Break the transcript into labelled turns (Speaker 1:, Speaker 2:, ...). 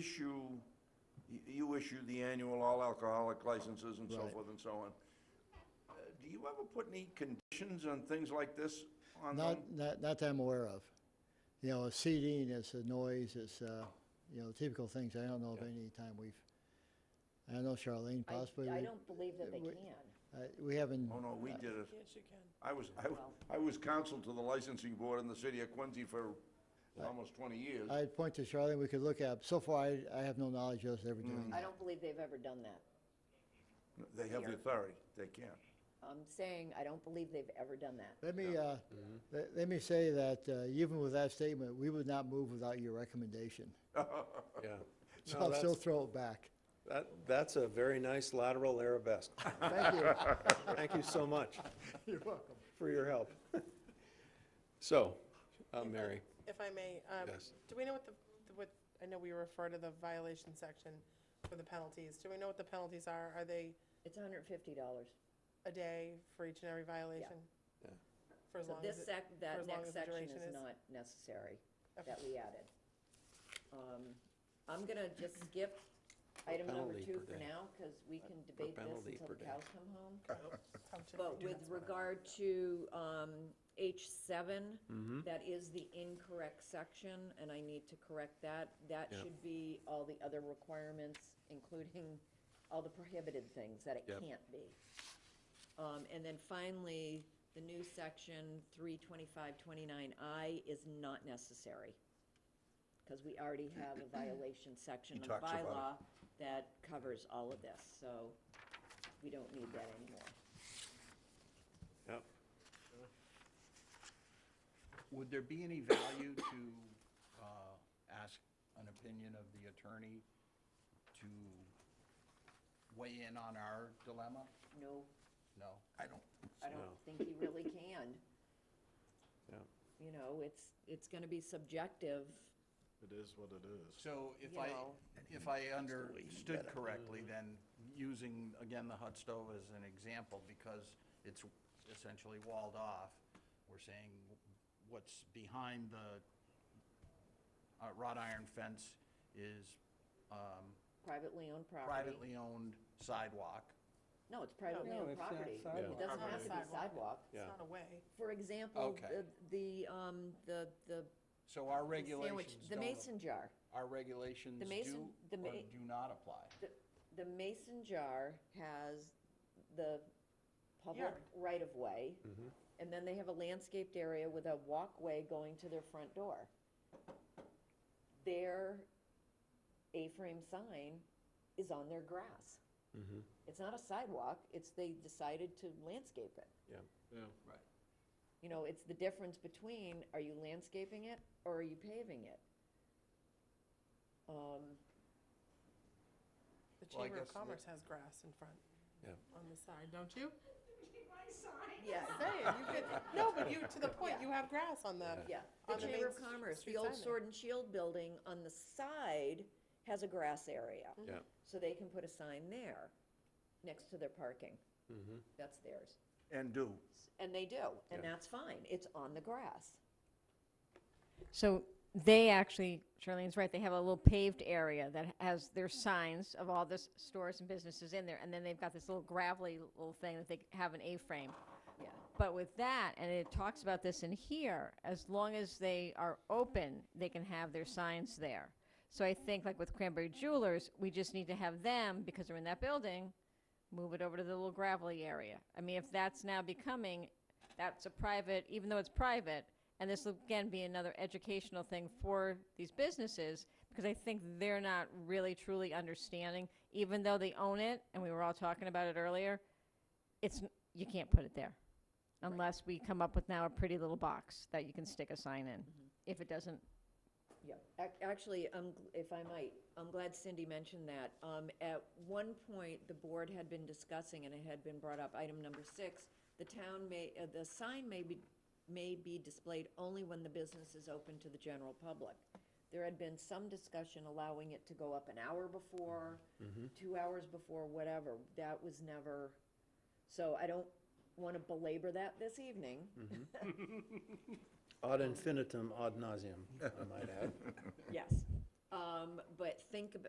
Speaker 1: issue, you- you issue the annual all alcoholic licenses and so
Speaker 2: Right.
Speaker 1: forth and so on. Uh, Do you ever put any conditions on things like this on
Speaker 2: Not,
Speaker 1: them?
Speaker 2: not, not that I'm aware of. You know, seating is a noise, it's, uh, you know, typical things. I don't know of any time we've, I don't know, Charlene,
Speaker 3: I-
Speaker 2: possibly,
Speaker 3: I
Speaker 2: we-
Speaker 3: don't believe that they
Speaker 2: we-
Speaker 3: can.
Speaker 2: I- we haven't,
Speaker 1: Oh, no, we did it.
Speaker 4: Yes, you can.
Speaker 1: I was, I was, I was counsel to the licensing board in the city of Quincy for almost 20 years.
Speaker 2: I'd point to Charlene, we could look at, so far, I, I have no knowledge of us ever doing
Speaker 3: I
Speaker 2: that.
Speaker 3: don't believe they've ever done that.
Speaker 1: They have the authority, they can.
Speaker 3: I'm saying, I don't believe they've ever done that.
Speaker 2: Let me, uh, let, let me say that, uh, even with that statement, we would not move without your recommendation.
Speaker 5: Yeah.
Speaker 2: So
Speaker 5: No,
Speaker 2: I'll still
Speaker 5: that's-
Speaker 2: throw it back.
Speaker 5: That, that's a very nice lateral arabesque.
Speaker 2: Thank you.
Speaker 5: Thank you so much
Speaker 2: You're welcome.
Speaker 5: for your help. So, uh, Mary,
Speaker 4: If I may, um,
Speaker 5: Yes.
Speaker 4: do we know what the, the- what, I know we refer to the violation section for the penalties. Do we know what the penalties are? Are they
Speaker 3: It's hundred and fifty dollars.
Speaker 4: a day for each and every violation?
Speaker 5: Yeah.
Speaker 4: For as
Speaker 3: So
Speaker 4: long
Speaker 3: this
Speaker 4: as it,
Speaker 3: sec,
Speaker 4: for
Speaker 3: that
Speaker 4: as long
Speaker 3: next
Speaker 4: as the
Speaker 3: section
Speaker 4: duration
Speaker 3: is
Speaker 4: is-
Speaker 3: not necessary,
Speaker 4: Okay.
Speaker 3: that we added. Um, I'm gonna just skip item number
Speaker 5: penalty
Speaker 3: two
Speaker 5: per
Speaker 3: for
Speaker 5: day.
Speaker 3: now, because we can debate
Speaker 5: penalty
Speaker 3: this until
Speaker 5: per
Speaker 3: the
Speaker 5: day.
Speaker 3: cows come home.
Speaker 4: assumption
Speaker 3: But with regard to um, H7,
Speaker 5: Mm-hmm.
Speaker 3: that is the incorrect section, and I need to correct that. That
Speaker 5: Yeah.
Speaker 3: should be all the other requirements, including all the prohibited things that it
Speaker 5: Yep.
Speaker 3: can't be. Um, And then finally, the new section 32529I is not necessary, because we already have a violation section of
Speaker 1: talks about it.
Speaker 3: bylaw that covers all of this, so we don't need that anymore.
Speaker 5: yep,
Speaker 6: Would there be any value to uh, ask an opinion of the attorney to weigh in on our dilemma?
Speaker 3: No,
Speaker 6: No, I don't.
Speaker 3: I don't
Speaker 5: No.
Speaker 3: think he really can.
Speaker 5: yep.
Speaker 3: You know, it's, it's gonna be subjective.
Speaker 7: It is what it is.
Speaker 6: So if
Speaker 3: You
Speaker 6: I,
Speaker 3: know.
Speaker 6: if I understood correctly, then using, again, the hut stove as an example, because it's essentially walled off, we're saying what's behind the uh, wrought iron fence is um,
Speaker 3: Privately owned property.
Speaker 6: privately owned sidewalk.
Speaker 3: No, it's privately owned property. It doesn't have to be sidewalk.
Speaker 4: It's not a way.
Speaker 3: For example,
Speaker 6: Okay.
Speaker 3: the- the, um, the, the
Speaker 6: So
Speaker 3: the
Speaker 6: our
Speaker 3: sandwich,
Speaker 6: regulations
Speaker 3: the
Speaker 6: don't-
Speaker 3: mason jar.
Speaker 6: Our regulations do
Speaker 3: mason- the
Speaker 6: or
Speaker 3: ma-
Speaker 6: do not apply.
Speaker 3: The, the mason jar has the public
Speaker 4: Yard.
Speaker 3: right-of-way, and then they have a landscaped area with a walkway going to their front door. Their A-frame sign is on their grass.
Speaker 5: Mm-hmm.
Speaker 3: It's not a sidewalk, it's they decided to landscape it.
Speaker 5: Yeah.
Speaker 6: Right.
Speaker 3: You know, it's the difference between, are you landscaping it or are you paving it? Um,
Speaker 4: The
Speaker 6: Well, I
Speaker 4: Chamber
Speaker 6: guess
Speaker 4: of
Speaker 6: the-
Speaker 4: Commerce has grass in front.
Speaker 5: Yep.
Speaker 4: On the side, don't you?
Speaker 3: yeah,
Speaker 4: Saying, you could, no, but you, to the point, you have grass on the.
Speaker 3: Yeah,
Speaker 4: on
Speaker 3: the
Speaker 4: the
Speaker 3: Chamber
Speaker 4: main
Speaker 3: of
Speaker 4: s-
Speaker 3: Commerce,
Speaker 4: street
Speaker 3: the old
Speaker 4: sign there.
Speaker 3: Sword and Shield building on the side has a grass area.
Speaker 5: Yeah.
Speaker 3: So they can put a sign there next to their parking. That's theirs.
Speaker 1: And do.
Speaker 3: And they do, and that's fine. It's on the grass.
Speaker 8: So they actually, Charlene's right, they have a little paved area that has their signs of all the s- stores and businesses in there, and then they've got this little gravelly little thing that they have an A-frame.
Speaker 3: Yeah.
Speaker 8: But with that, and it talks about this in here, as long as they are open, they can have their signs there. So I think like with Cranberry Jewelers, we just need to have them, because they're in that building, move it over to the little gravelly area. I mean, if that's now becoming, that's a private, even though it's private, and this will again be another educational thing for these businesses, because I think they're not really truly understanding, even though they own it, and we were all talking about it earlier, it's, n- you can't put it there. Unless we come up with now a pretty little box that you can stick a sign in, if it doesn't
Speaker 3: Yeah, ac- actually, um, if I might, I'm glad Cindy mentioned that. Um, at one point, the board had been discussing, and it had been brought up, item number six, the town may, uh, the sign may be, may be displayed only when the business is open to the general public. There had been some discussion allowing it to go up an hour before, two hours before, whatever. That was never, so I don't wanna belabor that this evening.
Speaker 5: Ad infinitum, ad nauseum, I might add.
Speaker 3: Yes. Um, Um, But think about.